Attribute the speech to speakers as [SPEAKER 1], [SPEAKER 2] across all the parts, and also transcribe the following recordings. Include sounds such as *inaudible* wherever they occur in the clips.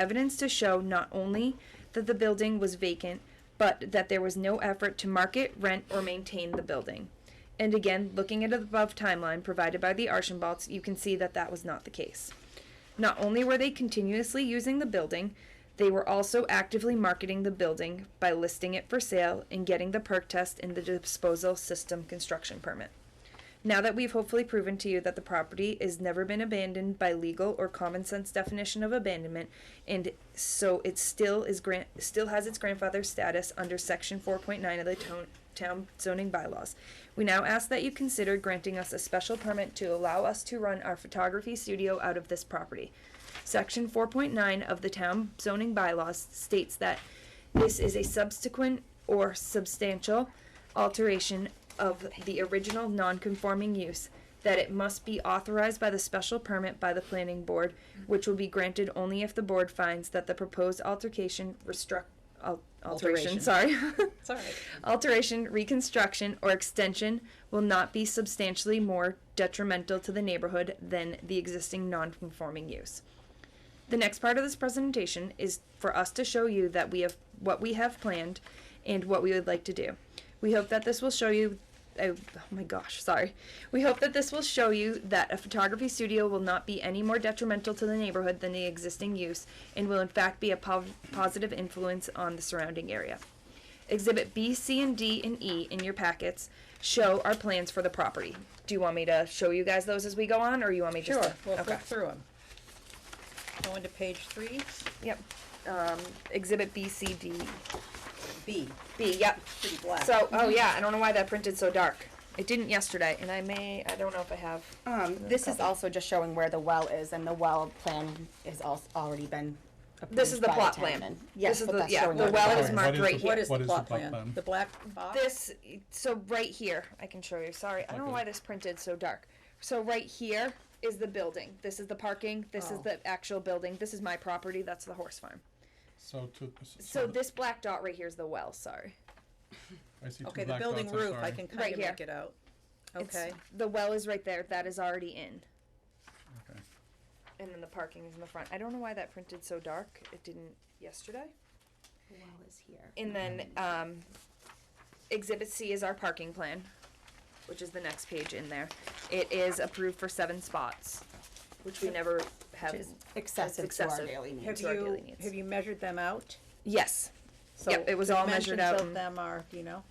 [SPEAKER 1] evidence to show not only that the building was vacant, but that there was no effort to market, rent, or maintain the building. And again, looking at the above timeline provided by the Archambalds, you can see that that was not the case. Not only were they continuously using the building, they were also actively marketing the building by listing it for sale and getting the perk test and the disposal system construction permit. Now that we've hopefully proven to you that the property has never been abandoned by legal or common sense definition of abandonment, and so it still is grant still has its grandfather status under section four point nine of the town town zoning bylaws. We now ask that you consider granting us a special permit to allow us to run our photography studio out of this property. Section four point nine of the town zoning bylaws states that this is a subsequent or substantial alteration of the original non-conforming use, that it must be authorized by the special permit by the planning board, which will be granted only if the board finds that the proposed altercation restruct, al- alteration,
[SPEAKER 2] Alteration.
[SPEAKER 1] sorry.
[SPEAKER 2] *laughs* It's all right.
[SPEAKER 1] *laughs* alteration, reconstruction, or extension will not be substantially more detrimental to the neighborhood than the existing non-conforming use. The next part of this presentation is for us to show you that we have what we have planned and what we would like to do. We hope that this will show you I, oh my gosh, sorry. We hope that this will show you that a photography studio will not be any more detrimental to the neighborhood than the existing use and will in fact be a po- positive influence on the surrounding area. Exhibit B, C, and D and E in your packets show our plans for the property. Do you want me to show you guys those as we go on or you want me just
[SPEAKER 2] Sure,
[SPEAKER 1] to?
[SPEAKER 2] we'll
[SPEAKER 1] okay.
[SPEAKER 2] flip through them. Going to page three,
[SPEAKER 1] Yep. Um, exhibit B, C, D,
[SPEAKER 2] B,
[SPEAKER 1] B. Yep.
[SPEAKER 2] pretty black.
[SPEAKER 1] So, oh yeah, I don't know why that printed so dark. It didn't yesterday, and I may, I don't know if I have.
[SPEAKER 3] Um, this is also just showing where the well is, and the well plan has al- already been approved
[SPEAKER 1] This is the
[SPEAKER 3] by
[SPEAKER 1] plot
[SPEAKER 3] town,
[SPEAKER 1] plan.
[SPEAKER 3] and-
[SPEAKER 1] This
[SPEAKER 3] Yes,
[SPEAKER 1] is
[SPEAKER 3] but
[SPEAKER 1] the-
[SPEAKER 3] that's
[SPEAKER 1] yeah,
[SPEAKER 3] showing
[SPEAKER 1] the
[SPEAKER 3] where
[SPEAKER 1] well
[SPEAKER 3] the
[SPEAKER 1] is
[SPEAKER 3] plan
[SPEAKER 1] marked right here.
[SPEAKER 2] What is the
[SPEAKER 4] What is
[SPEAKER 2] plot plan? The black box?
[SPEAKER 1] This, so right here, I can show you. Sorry, I don't know
[SPEAKER 4] Okay.
[SPEAKER 1] why this printed so dark. So right here is the building. This is the parking. This is
[SPEAKER 2] Oh.
[SPEAKER 1] the actual building. This is my property. That's the horse farm.
[SPEAKER 4] So to,
[SPEAKER 1] So
[SPEAKER 4] so
[SPEAKER 1] this black dot right here is the well. Sorry.
[SPEAKER 4] I see two
[SPEAKER 2] Okay, the
[SPEAKER 4] black
[SPEAKER 2] building
[SPEAKER 4] dots, I'm
[SPEAKER 2] roof, I
[SPEAKER 4] sorry.
[SPEAKER 2] can
[SPEAKER 1] Right
[SPEAKER 2] kind of
[SPEAKER 1] here.
[SPEAKER 2] make it out.
[SPEAKER 1] It's-
[SPEAKER 2] Okay,
[SPEAKER 1] The well is right there. That is already in.
[SPEAKER 4] Okay.
[SPEAKER 1] And then the parking is in the front. I don't know why that printed so dark. It didn't yesterday.
[SPEAKER 3] The well is here.
[SPEAKER 1] And then
[SPEAKER 2] Mm-hmm.
[SPEAKER 1] um, Exhibit C is our parking plan, which is the next page in there. It is approved for seven spots, which we never have.
[SPEAKER 3] Which is excessive to our
[SPEAKER 1] excessive.
[SPEAKER 3] daily
[SPEAKER 2] have
[SPEAKER 3] needs.
[SPEAKER 1] to our daily
[SPEAKER 2] you,
[SPEAKER 1] needs.
[SPEAKER 2] have you measured them out?
[SPEAKER 1] Yes.
[SPEAKER 2] So
[SPEAKER 1] Yep, it was all measured out
[SPEAKER 2] Dimensions of
[SPEAKER 1] and-
[SPEAKER 2] them are, do you know?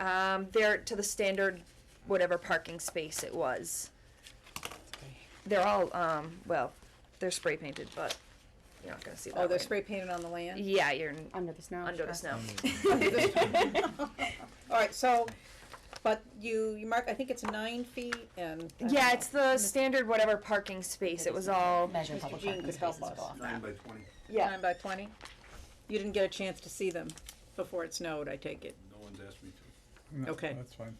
[SPEAKER 1] Um, they're to the standard, whatever parking space it was. They're all, um, well, they're spray painted, but you're not gonna see that.
[SPEAKER 2] Oh, they're
[SPEAKER 1] right-
[SPEAKER 2] spray painted on the land?
[SPEAKER 1] Yeah, you're n-
[SPEAKER 3] Under the snow.
[SPEAKER 1] under the
[SPEAKER 3] sure.
[SPEAKER 1] snow.
[SPEAKER 2] All right, so, but you, you mark, I think it's nine feet and. I don't
[SPEAKER 1] Yeah,
[SPEAKER 2] know.
[SPEAKER 1] it's the standard whatever parking space. It was all,
[SPEAKER 3] Measure
[SPEAKER 2] Mr.
[SPEAKER 3] public
[SPEAKER 2] Jean
[SPEAKER 3] parking
[SPEAKER 2] could help
[SPEAKER 3] spaces
[SPEAKER 2] us.
[SPEAKER 3] go off
[SPEAKER 5] Nine
[SPEAKER 3] that.
[SPEAKER 5] by twenty.
[SPEAKER 1] yeah.
[SPEAKER 2] Nine by twenty? You didn't get a chance to see them before it snowed, I take it?
[SPEAKER 5] No one's asked me to.
[SPEAKER 4] No,
[SPEAKER 2] Okay.
[SPEAKER 4] That's fine.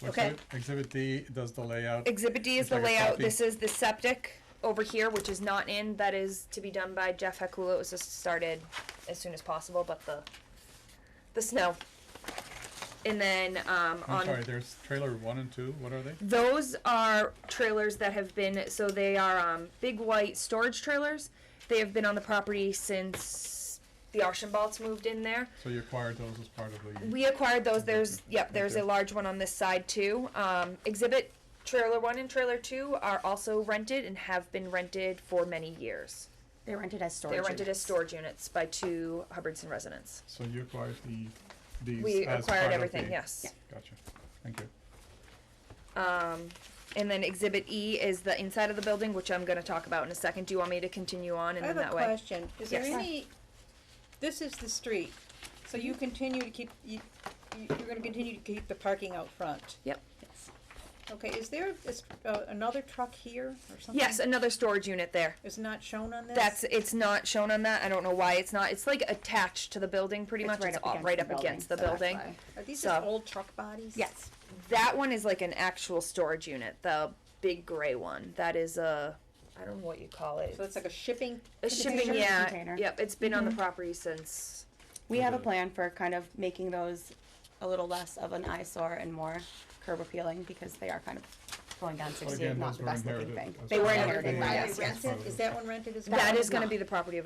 [SPEAKER 4] So
[SPEAKER 2] Okay.
[SPEAKER 4] exhibit- Exhibit D does the layout.
[SPEAKER 1] Exhibit D is
[SPEAKER 4] It's
[SPEAKER 1] the
[SPEAKER 4] like a
[SPEAKER 1] layout.
[SPEAKER 4] copy.
[SPEAKER 1] This is the septic over here, which is not in. That is to be done by Jeff Hekula. It was just started as soon as possible, but the the snow. And then um,
[SPEAKER 4] I'm
[SPEAKER 1] on
[SPEAKER 4] sorry, there's trailer one and two, what are they?
[SPEAKER 1] those are trailers that have been so they are um, big white storage trailers. They have been on the property since the Archambalds moved in there.
[SPEAKER 4] So you acquired those as part of the,
[SPEAKER 1] We acquired those. There's yep. There's
[SPEAKER 4] Okay.
[SPEAKER 1] a large one on this side too. Um, exhibit trailer one and trailer two are also rented and have been rented for many years.
[SPEAKER 3] They're rented as storage.
[SPEAKER 1] They're rented as
[SPEAKER 3] units.
[SPEAKER 1] storage units by two Hubbardson residents.
[SPEAKER 4] so you acquired the, these
[SPEAKER 1] We
[SPEAKER 4] as part
[SPEAKER 1] acquired
[SPEAKER 4] of
[SPEAKER 1] everything.
[SPEAKER 4] the-
[SPEAKER 1] Yes.
[SPEAKER 4] Gotcha, thank you.
[SPEAKER 1] Um, and then exhibit E is the inside of the building, which I'm going to talk about in a second. Do you want me to continue on and
[SPEAKER 2] I have
[SPEAKER 1] then
[SPEAKER 2] a
[SPEAKER 1] that way?
[SPEAKER 2] question. Is there
[SPEAKER 1] Yes.
[SPEAKER 2] any, this is the street, so
[SPEAKER 1] Mm-hmm.
[SPEAKER 2] you continue to keep, you, you- you're gonna continue to keep the parking out front?
[SPEAKER 1] Yep.
[SPEAKER 3] Yes.
[SPEAKER 2] Okay, is there is, uh, another truck here or something?
[SPEAKER 1] Yes, another storage unit there.
[SPEAKER 2] It's not shown on this?
[SPEAKER 1] That's it's not shown on that. I don't know why it's not. It's like attached to the building, pretty
[SPEAKER 3] It's
[SPEAKER 1] much.
[SPEAKER 3] right
[SPEAKER 1] it's
[SPEAKER 3] up
[SPEAKER 1] all-
[SPEAKER 3] against
[SPEAKER 1] right
[SPEAKER 3] the
[SPEAKER 1] up
[SPEAKER 3] building,
[SPEAKER 1] against the
[SPEAKER 3] so that's
[SPEAKER 1] building.
[SPEAKER 3] why.
[SPEAKER 2] Are these just
[SPEAKER 1] so-
[SPEAKER 2] old truck bodies?
[SPEAKER 3] Yes.
[SPEAKER 1] That one is like an actual storage unit, the big gray one. That is a I don't know what you call it.
[SPEAKER 2] So it's like a Mm-hmm. shipping?
[SPEAKER 1] a
[SPEAKER 3] container?
[SPEAKER 1] shipping, yeah.
[SPEAKER 3] Container.
[SPEAKER 1] Yep, it's been on the property since.
[SPEAKER 3] We have a
[SPEAKER 4] Mhm.
[SPEAKER 3] plan for kind of making those a little less of an eyesore and more curb appealing because they are kind of going down
[SPEAKER 4] So
[SPEAKER 3] sixteen,
[SPEAKER 4] again,
[SPEAKER 3] not
[SPEAKER 4] those
[SPEAKER 3] the
[SPEAKER 4] were
[SPEAKER 3] best looking
[SPEAKER 4] inherited
[SPEAKER 3] thing.
[SPEAKER 4] as
[SPEAKER 3] They were
[SPEAKER 4] part of
[SPEAKER 3] inherited,
[SPEAKER 4] the-
[SPEAKER 3] right, yes, yes.
[SPEAKER 4] as part of
[SPEAKER 2] Rented?
[SPEAKER 4] the-
[SPEAKER 2] Is that one rented as well?
[SPEAKER 1] That
[SPEAKER 3] one
[SPEAKER 1] is going to
[SPEAKER 3] not.
[SPEAKER 1] be the property of